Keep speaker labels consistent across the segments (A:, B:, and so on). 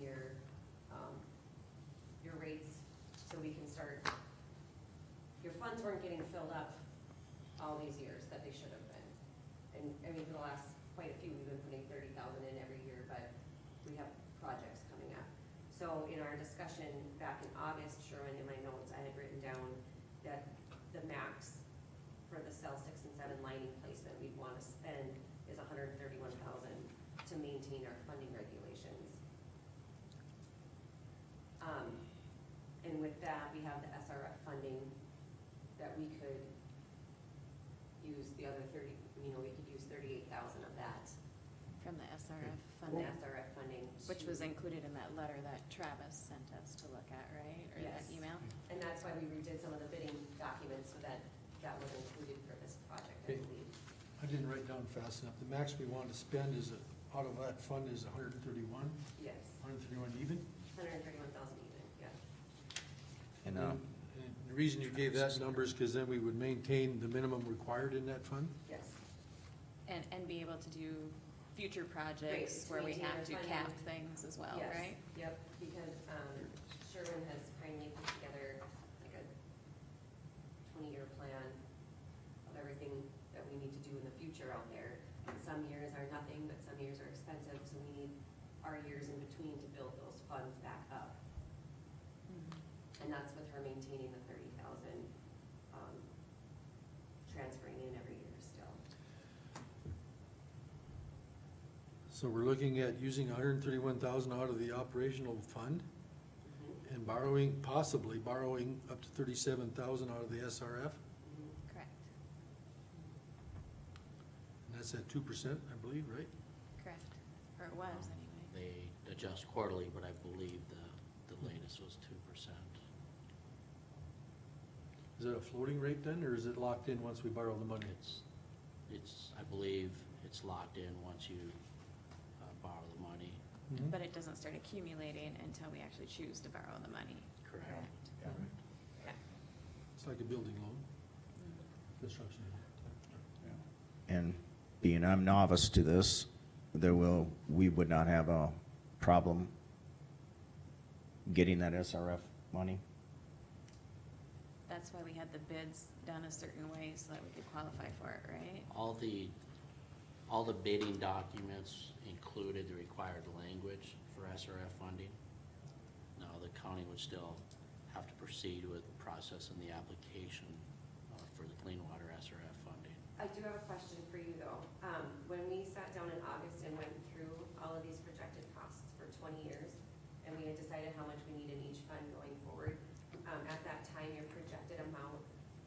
A: um, ponds weren't getting filled up all these years that they should have been. And, I mean, for the last quite a few, we've been putting thirty thousand in every year, but we have projects coming up. So in our discussion back in August, Sherwin, in my notes, I had written down that the max for the cell six and seven lining placement we'd wanna spend is $131,000 to maintain our funding regulations. Um, and with that, we have the SRF funding that we could use the other thirty, you know, we could use thirty-eight thousand of that
B: From the SRF
A: from the
B: funding,
A: SRF funding. to-
B: which was included in that letter that Travis sent us to look at, right? Or that
A: Yes.
B: email?
A: And that's why we redid some of the bidding documents so that that was included for this project, I
C: Okay.
A: believe.
C: I didn't write down fast enough. The max we wanted to spend is, uh, out of that fund is hundred and thirty-one,
A: Yes,
C: hundred and thirty-one even.
A: hundred and thirty-one thousand even, yeah.
D: And, uh,
C: And The reason you gave that number is because then we would maintain the minimum required in that fund.
A: Yes,
B: And, and be able to do future projects
A: to
B: where we
A: maintain our
B: have to
A: funding.
B: cap things as well,
A: Yes.
B: right?
A: yep, because um, Sherwin has kindly put together like a twenty-year plan of everything that we need to do in the future out there. And some years are nothing, but some years are expensive, so we need our years in between to build those funds back up. And that's with her maintaining the thirty thousand, um, transferring in every year still.
C: So we're looking at using hundred and thirty-one thousand out of the operational fund
A: Mhm,
C: and borrowing, possibly borrowing up to thirty-seven thousand out of the SRF.
A: mhm.
B: Correct,
C: And that's at two percent, I believe, right?
B: correct. Or it was
A: Mm-hmm.
B: anyway.
E: They adjust quarterly, but I believe the, the latest was two percent.
C: Is that a floating rate then, or is it locked in once we borrow the money?
E: It's, it's, I believe it's locked in once you uh, borrow the money.
C: Mhm.
B: But it doesn't start accumulating until we actually choose to borrow the money.
E: Correct.
D: Mm-hmm.
C: It's like a building loan, construction.
D: and being I'm novice to this, there will, we would not have a problem getting that SRF money?
B: That's why we had the bids done a certain way so that we could qualify for it, right?
E: All the, all the bidding documents included the required language for SRF funding. Now, the county would still have to proceed with processing the application uh, for the clean water SRF funding.
A: I do have a question for you though. Um, when we sat down in August and went through all of these projected costs for twenty years, and we had decided how much we need in each fund going forward, um, at that time, your projected amount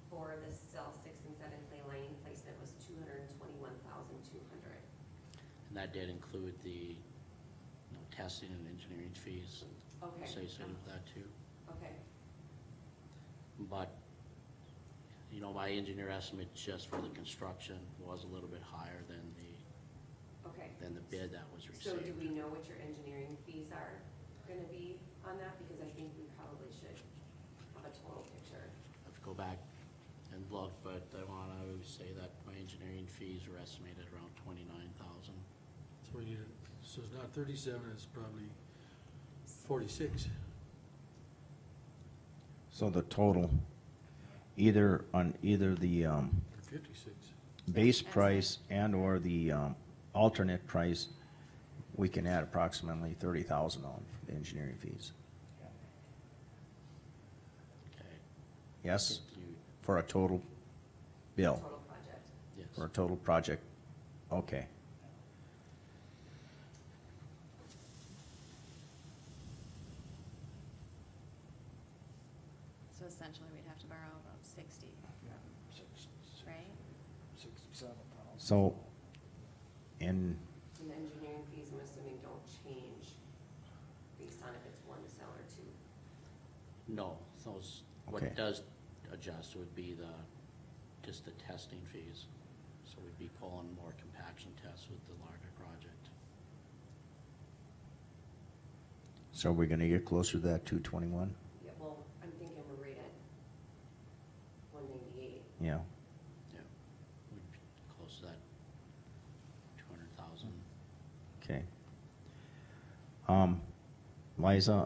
A: for the cell six and seven clay lining placement was two hundred and twenty-one thousand two hundred.
E: And that did include the, you know, testing and engineering fees
A: Okay,
E: associated with that too.
A: okay,
E: But, you know, my engineer estimate just for the construction was a little bit higher than the,
A: okay.
E: than the bid that was
A: So do we
E: received.
A: know what your engineering fees are gonna be on that? Because I think we probably should have a total picture.
E: I have to go back and look, but I wanna say that my engineering fees were estimated around twenty-nine thousand.
C: So we need, a- so it's not thirty-seven, it's probably forty-six.
D: So the total, either on, either the, um,
C: Or fifty-six.
D: base price and/or the, um, alternate price, we can add approximately thirty thousand on engineering fees.
E: Okay.
D: Yes,
E: If you-
D: for a total bill,
A: Total project.
E: Yes.
D: for a total project, okay.
B: So essentially, we'd have to borrow about sixty, right?
F: Sixty-seven thousand.
D: So, in
A: And the engineering fees, I'm assuming, don't change based on if it's one cell or two.
E: No, those,
D: Okay.
E: what does adjust would be the, just the testing fees. So we'd be pulling more compaction tests with the larger project.
D: So we're gonna get closer to that two twenty-one?
A: Yeah, well, I'm thinking we're right at one ninety-eight.
D: Yeah.
E: Yeah, we'd be close to that two hundred thousand.
D: Okay. Um, Liza,